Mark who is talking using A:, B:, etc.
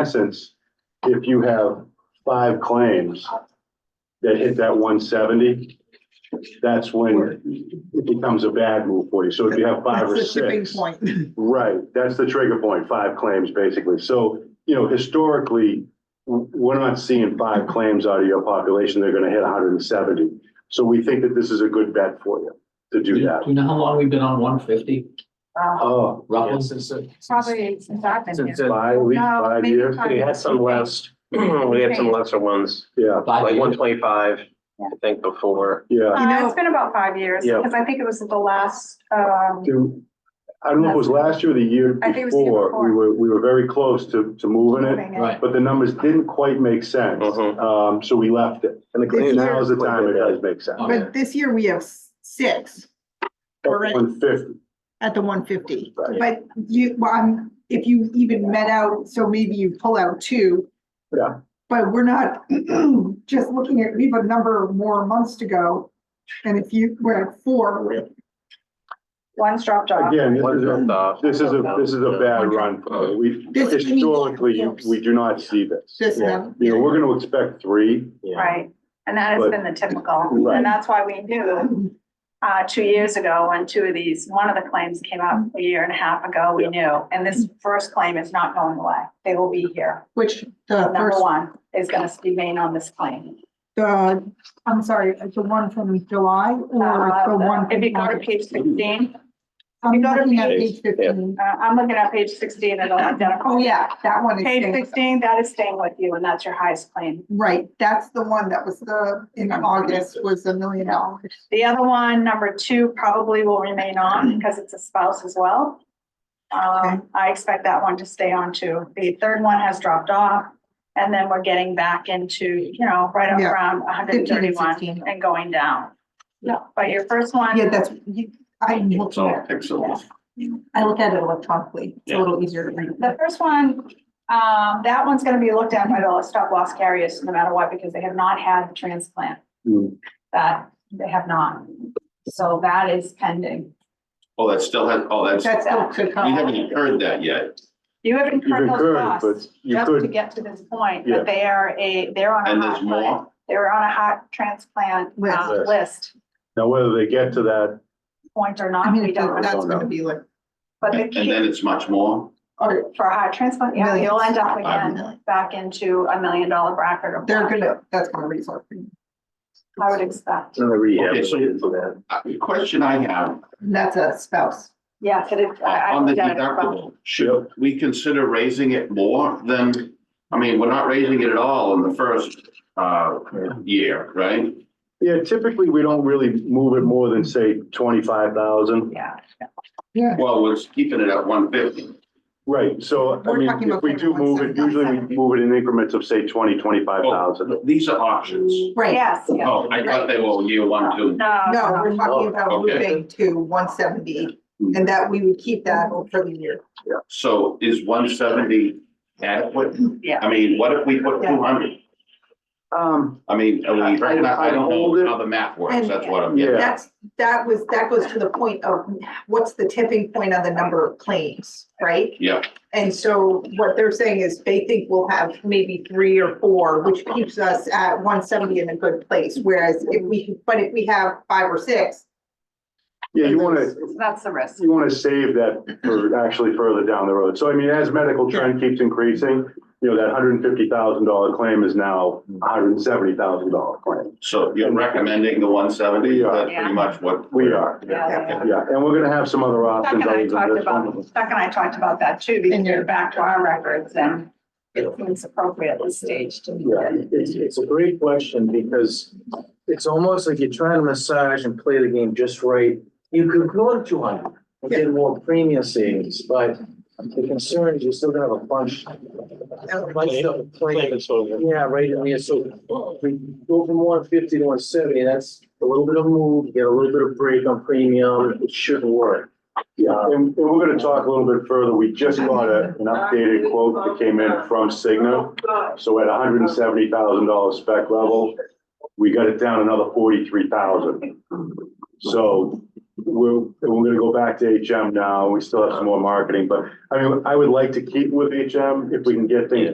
A: essence, if you have five claims that hit that one seventy, that's when it becomes a bad move for you. So if you have five
B: That's
A: or
B: the tipping
A: six. Oh,
B: point.
A: Right, that's the trigger point, five claims basically. So, you know, historically, w- we're not seeing five claims out of your population. They're gonna hit hundred and seventy. So we think that this is a good bet for you to
C: Do
A: do
D: Mm-hmm.
C: you
A: that.
C: know how long we've been on one fifty
E: Uh,
A: Oh,
C: roughly since? it-
E: Probably since I've been
D: Since
E: here.
D: uh,
A: five, at least
E: No,
A: five
E: maybe
A: years?
E: five.
D: we had some less, we had some lesser ones,
A: Yeah,
C: Five
D: like one
C: years?
D: twenty-five, I think before.
A: yeah.
B: You
E: Uh,
B: know-
E: it's been about five years,
D: Yeah.
E: because I think it was the last, um,
A: Do, I don't know if it was last year or the year
E: I think it was the year
A: before, we
E: before.
A: were, we were very close to, to moving it,
E: thing.
C: Right,
A: but the numbers didn't quite make sense.
D: Mhm.
A: Um, so we left it.
D: And the
B: claims-
A: Now's the time it does make sense.
C: Okay.
B: But this year we have s- six Correct.
A: One fifty,
B: at the one fifty.
A: Right.
B: But you, well, I'm- if you even met out, so maybe you pull out two.
A: Yeah.
B: But we're not just looking at, we have a number more months to go. And if you, we're at four, we're
E: one's dropped off.
A: again, this
D: One
A: is a
D: dropped off.
A: This is a, this is a bad
B: Okay.
A: run. for it. We,
B: This is-
A: historically, you- we do not see this.
B: this
A: Yeah.
B: now.
A: You know, we're gonna expect three.
D: Yeah.
E: Right, and that has
A: But-
E: been the typical,
A: Right.
E: and that's why we knew, uh, two years ago, when two of these, one of the claims came up a year and a half ago, we
A: Yeah.
E: knew, and this first claim is not going away, they will be here.
B: Which the
E: Number
B: first,
E: one is gonna remain on this claim.
B: the, I'm sorry, the one from July or the one.
E: Uh,
B: from
E: If you go to
B: August?
E: page sixteen,
B: I'm
E: you go to
B: looking at page
E: page-
B: fifteen.
E: uh, I'm looking at page sixteen, it'll identify.
B: Oh, yeah, that one is.
E: Page
B: six.
E: sixteen, that is staying with you, and that's your highest claim.
B: Right, that's the one that was the, in August was a million dollars.
E: The other one, number two, probably will remain on because it's a spouse as well.
B: Okay.
E: Um, I expect that one to stay on too. The third one has dropped off. And then we're getting back into, you know, right up
B: Yeah.
E: around hundred
B: 15
E: and
B: and
E: thirty-one
B: 16.
E: and going down. Yeah. But your first one.
B: Yeah, that's, you, I look,
F: It's all pixels.
B: I look at it electronically, it's a little easier to read.
E: The first one, um, that one's gonna be looked at by the stop loss carriers no matter what, because they have not had the transplant.
A: Mm.
E: That they have not. So that is pending.
F: Oh, that still has, oh, that's,
B: That's still could
F: we
B: come.
F: haven't incurred that yet.
E: You have
A: You've
E: incurred those
A: incurred,
E: costs.
A: but you
E: just to
A: could,
E: get to this point,
A: Yeah.
E: that they are a, they're on a
F: And there's
E: hot, list.
F: more.
E: they're on a hot transplant
B: List.
E: uh,
A: List.
E: list
A: now whether they get to that,
E: point or
B: I
E: not,
B: mean,
E: we
B: if
E: don't
B: that's
E: know.
B: gonna be like,
E: But the
F: And and
E: key
F: then it's much more.
B: or
E: for a hot transplant, yeah, you'll end up
F: Millions.
E: again back into a million dollar bracket or
B: they're
E: more,
B: gonna, that's gonna result. in-
E: I would expect.
F: Okay, so uh, the question I have,
B: That's a spouse.
E: Yes, it is. I- I
F: on the
E: looked at it as well.
F: deductible, should we consider raising it more than, I mean, we're not raising it at all in the first uh year, right?
A: yeah, typically, we don't really move it more than, say, twenty-five thousand.
E: Yeah,
F: Well, we're keeping it at one fifty.
A: Right, so, I
B: We're
A: mean,
B: talking
A: if
B: about
A: we do move it,
B: 21,700.
A: usually we move it in increments of, say, twenty, twenty-five thousand.
F: These are options.
B: Right,
E: yes, yes.
F: Oh, I thought they were year one, two.
E: No,
B: no,
E: no.
B: we're talking about
F: Okay.
B: moving to one seventy and that we would keep that for the year.
F: So is one seventy adequate?
E: Yeah.
F: I mean, what if we put two hundred?
A: Um,
F: I mean, are
A: I-
F: we recognize,
A: I-
F: I don't
A: hold
F: know
A: it.
F: how the math works, that's what I'm
A: Yeah.
F: getting. at.
B: That's, that was, that goes to the point of what's the tipping point on the number of claims, right?
F: Yeah,
B: And so what they're saying is they think we'll have maybe three or four, which keeps us at one seventy in a good place. Whereas if we, but if we have five or six.
A: yeah, you wanna,
E: That's the risk.
A: you wanna save that for actually further down the road. So I mean, as medical trend keeps increasing, you know, that hundred and fifty thousand dollar claim is now a hundred and seventy thousand dollar claim.
F: so you're recommending the one seventy,
A: We are.
F: that's pretty much what.
A: We are,
E: Yeah, yeah.
A: yeah, and we're gonna have some other
E: Chuck
A: options.
E: and I
A: other than
E: talked
A: this
E: about,
A: one.
E: Chuck and I talked about that too, because
B: And you're-
E: you're back to our records and it seems appropriate at this stage to do
D: Yeah,
E: that.
D: it's, it's a great question because it's almost like you're trying to massage and play the game just right. You could go to two hundred and get more premium savings, but the concern is you're still gonna have a bunch. a bunch of claims. Yeah, right, I mean, so if we go from one fifty to one seventy, that's a little bit of move, you get a little bit of break on premium, it shouldn't work.
A: Yeah, and, and we're gonna talk a little bit further. We just got a, an updated quote that came in from Cigna. So at hundred and seventy thousand dollar spec level, we got it down another forty-three thousand. So we're, and we're gonna go back to HM now. We still have some more marketing, but I mean, I would like to keep with HM if we can get things